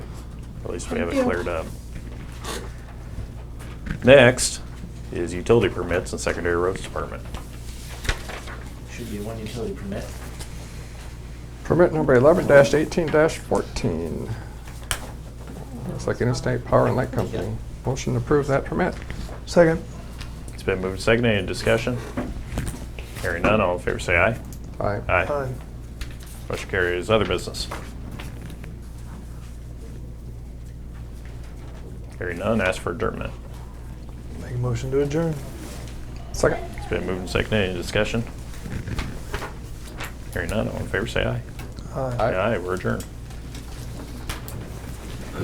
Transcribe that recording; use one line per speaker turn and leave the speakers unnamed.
At least we have it
Thank you.
cleared up. Next is utility permits and secondary roads department.
Should be one utility permit.
Permit number eleven eighteen fourteen. Looks like Interstate Power and Light Company. Motion to approve that permit.
Second.
It's been moved and seconded. Any discussion? Hearing none, all in favor say aye.
Aye.
Aye. Motion carries. Other business. Hearing none, ask for adjournment.
Make a motion to adjourn.
Second.
It's been moved and seconded. Any discussion? Hearing none, all in favor say aye.
Aye.
Aye.
Aye, we're adjourned.